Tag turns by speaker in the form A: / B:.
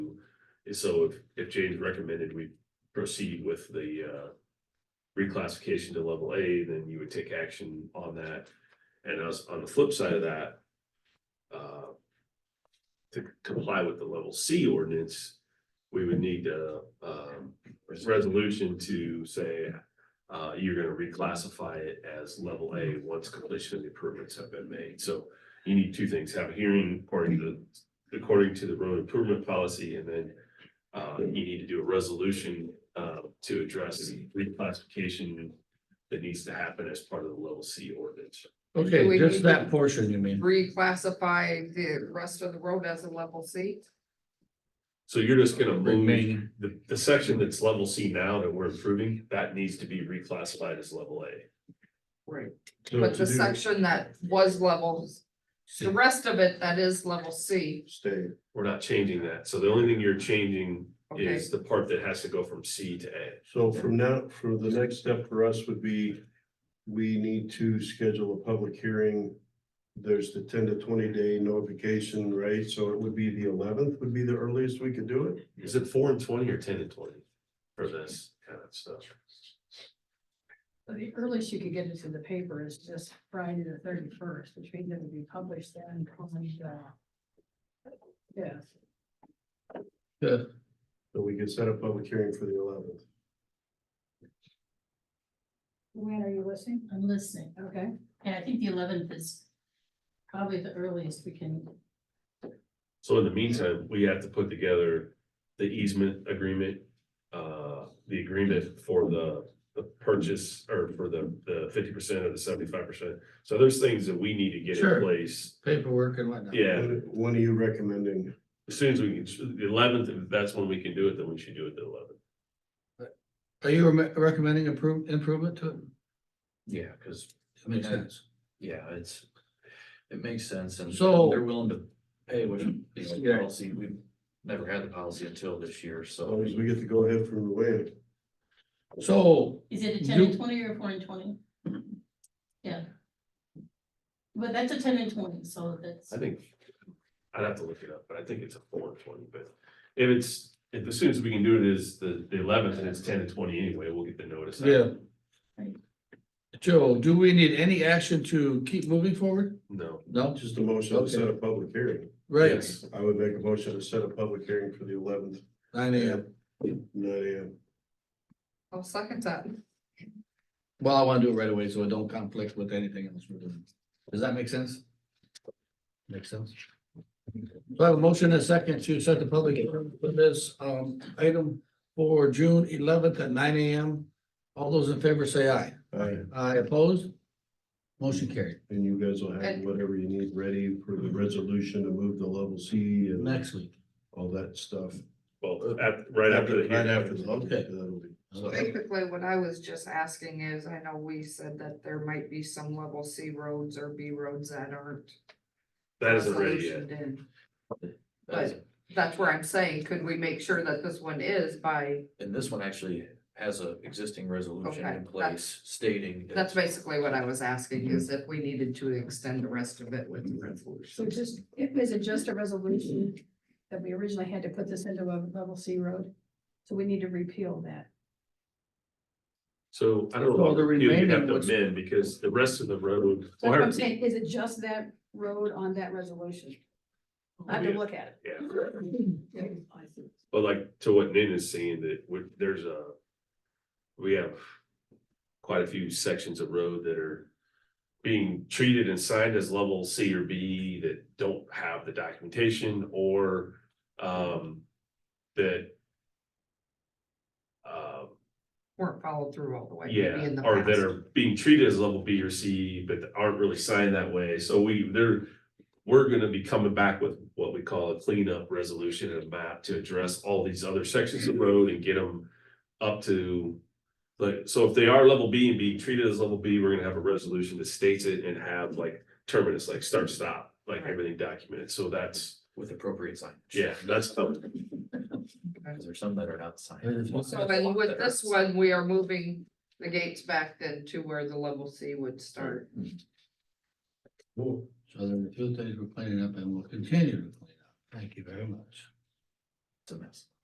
A: So if, if James recommended we proceed with the, uh. Reclassification to level A, then you would take action on that. And as, on the flip side of that. Uh. To comply with the level C ordinance, we would need a, um, resolution to say. Uh, you're gonna reclassify it as level A once completion of the improvements have been made. So you need two things, have a hearing according to, according to the road improvement policy and then. Uh, you need to do a resolution, uh, to address the reclassification that needs to happen as part of the level C ordinance.
B: So
C: Okay,
B: we
C: just
B: need
C: that
B: to-
C: portion, you mean?
B: reclassify the rest of the road as a level C?
A: So you're just gonna move
C: Remaining,
A: the, the section that's level C now that we're improving, that needs to be reclassified as level A.
B: Right.
C: so
B: But
C: to
B: the
C: do-
B: section that was levels, the rest of it that is level C,
D: Stay.
A: We're not changing that. So the only thing you're changing
B: okay,
A: is the part that has to go from C to A.
D: So from now, for the next step for us would be, we need to schedule a public hearing. There's the ten to twenty day notification, right? So it would be the eleventh would be the earliest we could do it.
A: Is it four and twenty or ten and twenty for this kind of stuff?
E: So The earliest you could get into the paper is just Friday the thirty-first, which means it would be published then on the. Yeah,
D: So we could set a public hearing for the eleventh.
E: when are you listening?
F: I'm listening.
E: Okay,
F: And I think the eleventh is probably the earliest we can,
A: So in the meantime, we have to put together the easement agreement, uh, the agreement for the, the purchase or for the, the fifty percent or the seventy-five percent. So there's things that we need to get in
C: Sure.
A: place.
C: Paperwork and whatnot.
A: Yeah,
D: When when are you recommending?
A: as soon as we can, the eleventh, if that's when we can do it, then we should do it the eleventh.
C: Are you rem- recommending improve, improvement to it?
G: Yeah, because,
C: That Makes
G: Yeah.
C: sense.
G: yeah, it's, it makes sense and
C: So-
G: they're willing to pay, which, you know,
C: Yeah.
G: policy, we've never had the policy until this year,
D: As long
G: so.
D: as we get to go ahead from the way.
C: So,
F: is it a ten and
C: You-
F: twenty or four and twenty? Yeah. But that's a ten and twenty, so that's,
A: I think, I'd have to look it up, but I think it's a four and twenty, but if it's, if as soon as we can do it is the, the eleventh and it's ten to twenty anyway, we'll get the notice. out.
C: yeah. Joe, do we need any action to keep moving forward?
A: No,
C: No,
D: Just a motion to set a public hearing.
C: right,
D: I would make a motion to set a public hearing for the eleventh,
C: nine AM.
D: nine AM.
B: I'll second that.
C: Well, I wanna do it right away, so it don't conflict with anything else we're doing. Does that make sense? Makes sense. So I have a motion and a second to set the public hearing for this, um, item for June eleventh at nine AM. All those in favor say aye.
D: Aye.
C: Aye opposed? Motion carried.
D: And you guys will have
B: And-
D: whatever you need ready for the resolution to move the level C and
C: Next week.
D: all that stuff.
A: well, at, right after the
D: Right
A: hearing.
D: after the level,
C: Okay.
D: that'll be.
B: Basically, what I was just asking is, I know we said that there might be some level C roads or B roads that aren't.
A: That isn't ready yet.
B: solutioned in. But that's where I'm saying, could we make sure that this one is by,
G: And this one actually has a existing resolution
B: Okay,
G: in place stating. that-
B: that's basically what I was asking, is if we needed to extend the rest of it with the
E: so
B: resolution.
E: just, if- is it just a resolution that we originally had to put this into a level C road? So we need to repeal that.
A: So I don't
C: So
A: know,
C: the
A: if you have
C: remaining
A: to
C: was-
A: amend because the rest of the road.
E: So what I'm saying, is it just that road on that resolution? I have to look at
A: Yeah,
E: it.
A: but like to what Nin is saying that we, there's a, we have quite a few sections of road that are being treated and signed as level C or B that don't have the documentation or um that um
B: Weren't followed through all the way. maybe
A: Yeah,
B: in the
A: or that
B: past.
A: are being treated as level B or C, but aren't really signed that way, so we, they're. We're gonna be coming back with what we call a cleanup resolution and a map to address all these other sections of road and get them up to. Like, so if they are level B and being treated as level B, we're gonna have a resolution that states it and have like terminus, like start, stop, like
B: Right.
A: everything documented, so that's,
G: With appropriate signage.
A: yeah, that's. coming.
G: Because there's some that are not
C: There's
G: signed.
C: one-
B: So then with this one, we are moving the gates back then to where the level C would start.
C: So there were a few things we're cleaning up and we will continue to clean up. Thank you very much.
G: It's a mess.